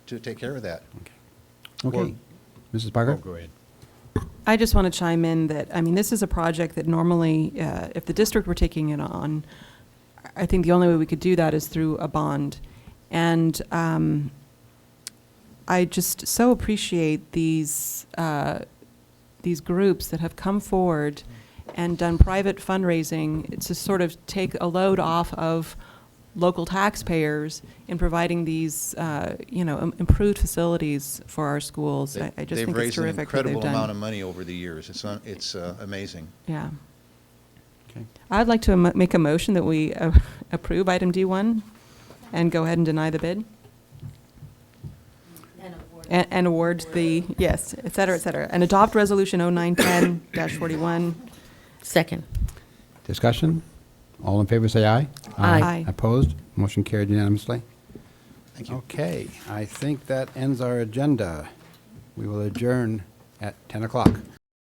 to take care of that. Okay. Mrs. Parker? ahead. I just want to chime in that, I mean, this is a project that normally, uh, if the district were taking it on, I think the only way we could do that is through a bond. And um, I just so appreciate these, uh, these groups that have come forward and done private fundraising to sort of take a load off of local taxpayers in providing these, uh, you know, im- improved facilities for our schools. I I just think it's terrific what They've raised an incredible they've done. amount of money over the years. It's, un- it's uh, amazing. Yeah. Okay. I'd like to mo- make a motion that we uh, approve item D1 and go ahead and deny the bid and and award the, yes, et cetera, et cetera, and adopt Resolution 0910-41. Second. Discussion? All in favor, say aye. Aye. Aye. Opposed? Motion carried unanimously. Thank you. Okay, I think that ends our agenda. We will adjourn at 10 o'clock.